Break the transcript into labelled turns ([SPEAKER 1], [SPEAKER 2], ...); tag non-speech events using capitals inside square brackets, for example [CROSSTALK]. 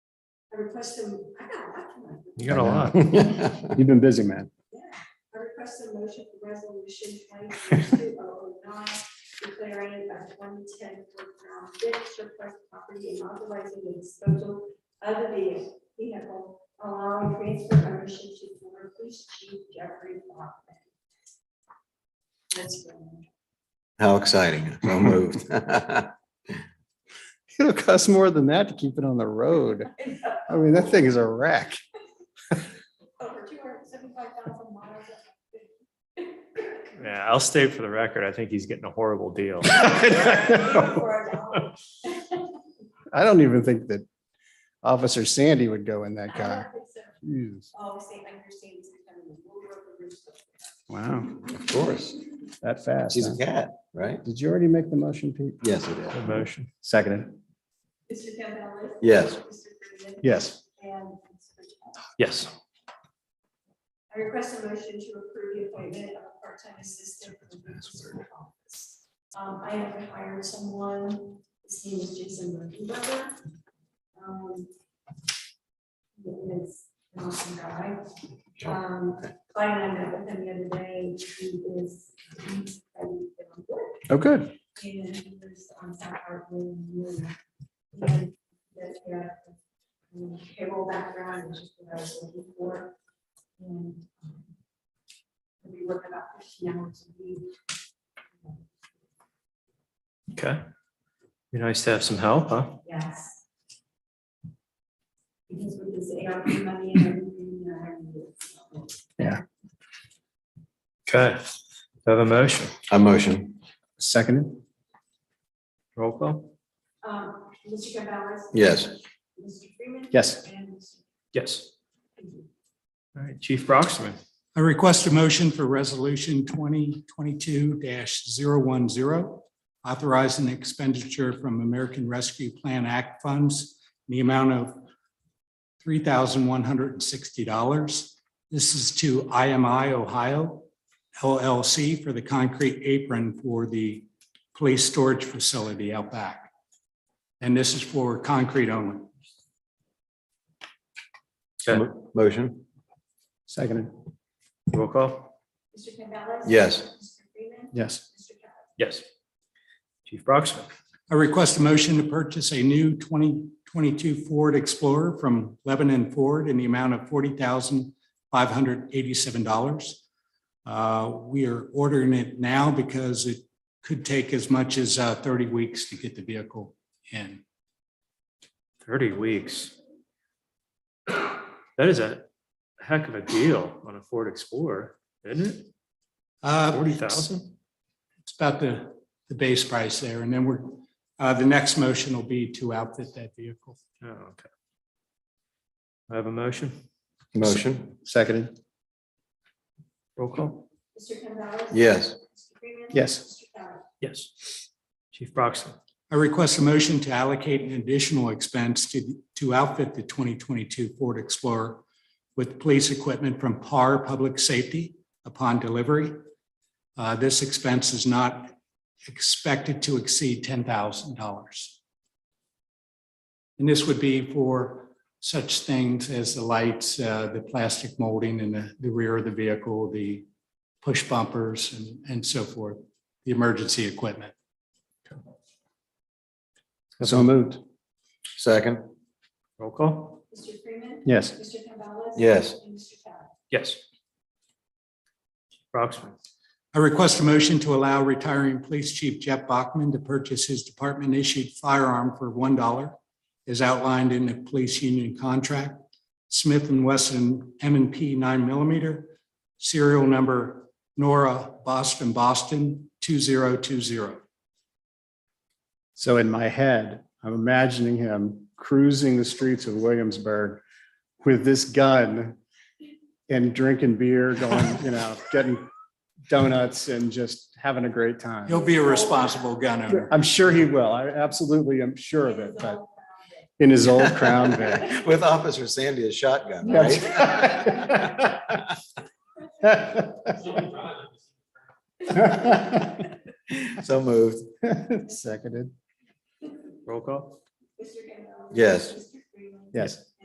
[SPEAKER 1] I request them, I got a lot tonight.
[SPEAKER 2] You got a lot.
[SPEAKER 3] [LAUGHS]
[SPEAKER 4] You've been busy, man.
[SPEAKER 1] I request a motion for resolution twenty-two oh nine, declaring a twenty-ten Fort Crown Vic surplus property and authorizing the disposal of the vehicle, allowing transfer ownership to former police chief Jeffrey Bachman. That's good.
[SPEAKER 3] [LAUGHS] How exciting. So moved. [LAUGHS]
[SPEAKER 4] It'll cost more than that to keep it on the road. I mean, that thing is a wreck.
[SPEAKER 1] [LAUGHS] Over two hundred seventy-five thousand miles. [LAUGHS]
[SPEAKER 2] Yeah, I'll state for the record, I think he's getting a horrible
[SPEAKER 4] [LAUGHS]
[SPEAKER 2] deal.
[SPEAKER 1] For a dollar.
[SPEAKER 4] I don't even think that Officer Sandy would go in that
[SPEAKER 1] I don't
[SPEAKER 4] car.
[SPEAKER 1] think [LAUGHS] so.
[SPEAKER 4] Jeez.
[SPEAKER 1] Obviously, I understand it's kind of a little over the roof.
[SPEAKER 4] Wow,
[SPEAKER 3] Of course.
[SPEAKER 4] that fast.
[SPEAKER 3] She's
[SPEAKER 4] huh?
[SPEAKER 3] a cat, right?
[SPEAKER 4] Did you already make the motion, Pete?
[SPEAKER 3] Yes, it is.
[SPEAKER 2] The Motion.
[SPEAKER 4] Seconded.
[SPEAKER 1] Mr. Campbell.
[SPEAKER 3] Yes.
[SPEAKER 1] Mr. Freeman.
[SPEAKER 4] Yes.
[SPEAKER 1] And Ms. Bridgewater.
[SPEAKER 2] Yes.
[SPEAKER 1] I request a motion to approve the appointment of a part-time assistant for the municipal office. Um, I have hired someone, his name is Jason Murphy. Um, he is an awesome guy. Um, Clyde and I met with him the other day. He is, he's, I'm good.
[SPEAKER 4] Oh, good.
[SPEAKER 1] And um, he was on South Hartland. And that, yeah. um, Payroll background, which is what I was looking for. And. um, We work about fifteen hours a week.
[SPEAKER 2] Okay. Be nice to have some help, huh?
[SPEAKER 1] Yes. Because with this ARP money and everything, you know, I mean, it's-
[SPEAKER 2] Okay. Do I Have a motion.
[SPEAKER 3] I motion.
[SPEAKER 4] Seconded.
[SPEAKER 2] Roll call.
[SPEAKER 1] Um, Mr. Campbell.
[SPEAKER 3] Yes.
[SPEAKER 1] Mr. Freeman.
[SPEAKER 4] Yes.
[SPEAKER 1] And Mr.
[SPEAKER 2] Yes.
[SPEAKER 1] Thank you.
[SPEAKER 2] All right, Chief Broxman.
[SPEAKER 5] I request a motion for resolution twenty twenty-two 10 authorizing expenditure from American Rescue Plan Act funds in the amount of three thousand one hundred and sixty dollars. This is to IMI Ohio LLC for the concrete apron for the police storage facility out back. And this is for concrete only.
[SPEAKER 2] Okay.
[SPEAKER 3] Motion.
[SPEAKER 4] Seconded.
[SPEAKER 2] Roll call.
[SPEAKER 1] Mr. Campbell.
[SPEAKER 3] Yes.
[SPEAKER 1] Mr. Freeman.
[SPEAKER 4] Yes.
[SPEAKER 1] Mr. Campbell.
[SPEAKER 2] Yes. Chief Broxman.
[SPEAKER 5] I request a motion to purchase a new 2022 Ford Explorer from Lebanon Ford in the amount of $40,587. Uh, We are ordering it now because it could take as much as uh, 30 weeks to get the vehicle in.
[SPEAKER 2] Thirty weeks. That is a heck of a deal on a Ford Explorer, isn't it?
[SPEAKER 5] Uh,
[SPEAKER 2] Forty thousand?
[SPEAKER 5] It's about the, the base price there. And then we're, uh, the next motion will be to outfit that vehicle.
[SPEAKER 2] Oh, okay. I have a motion.
[SPEAKER 3] Motion.
[SPEAKER 4] Seconded.
[SPEAKER 2] Roll call.
[SPEAKER 1] Mr. Campbell.
[SPEAKER 3] Yes.
[SPEAKER 1] Mr. Freeman.
[SPEAKER 4] Yes.
[SPEAKER 1] Mr. Campbell.
[SPEAKER 2] Yes. Chief Broxton.
[SPEAKER 5] I request a motion to allocate an additional expense to, to outfit the 2022 Ford Explorer with police equipment from PAR Public Safety upon delivery. Uh, This expense is not expected to exceed $10,000. And this would be for such things as the lights, uh, the plastic molding in the- the rear of the vehicle, the push bumpers and, and so forth, the emergency equipment.
[SPEAKER 4] So moved.
[SPEAKER 3] Second.
[SPEAKER 2] Roll call.
[SPEAKER 1] Mr. Freeman.
[SPEAKER 4] Yes.
[SPEAKER 1] Mr. Campbell.
[SPEAKER 3] Yes.
[SPEAKER 1] And Mr. Campbell.
[SPEAKER 2] Yes. Broxman.
[SPEAKER 5] I request a motion to allow retiring Police Chief Jeff Bachman to purchase his department-issued firearm for one dollar as outlined in the police union contract, Smith and Wesson M and P nine millimeter, serial number Nora Boston Boston two zero two zero.
[SPEAKER 4] So in my head, I'm imagining him cruising the streets of Williamsburg with this gun and drinking beer, going, [LAUGHS] you know, getting donuts and just having a great time.
[SPEAKER 5] He'll be a responsible gun owner.
[SPEAKER 4] I'm sure he will. I absolutely am sure of it,
[SPEAKER 1] Mrs.
[SPEAKER 4] but
[SPEAKER 1] Oliver.
[SPEAKER 4] in his old
[SPEAKER 3] [LAUGHS]
[SPEAKER 4] Crown Vic.
[SPEAKER 3] With Officer Sandy as shotgun,
[SPEAKER 4] That's
[SPEAKER 3] right?
[SPEAKER 4] [LAUGHS]
[SPEAKER 3] So moved.
[SPEAKER 4] Seconded.
[SPEAKER 2] Roll call.
[SPEAKER 1] Mr. Campbell.
[SPEAKER 3] Yes.
[SPEAKER 1] Mr. Freeman.
[SPEAKER 4] Yes.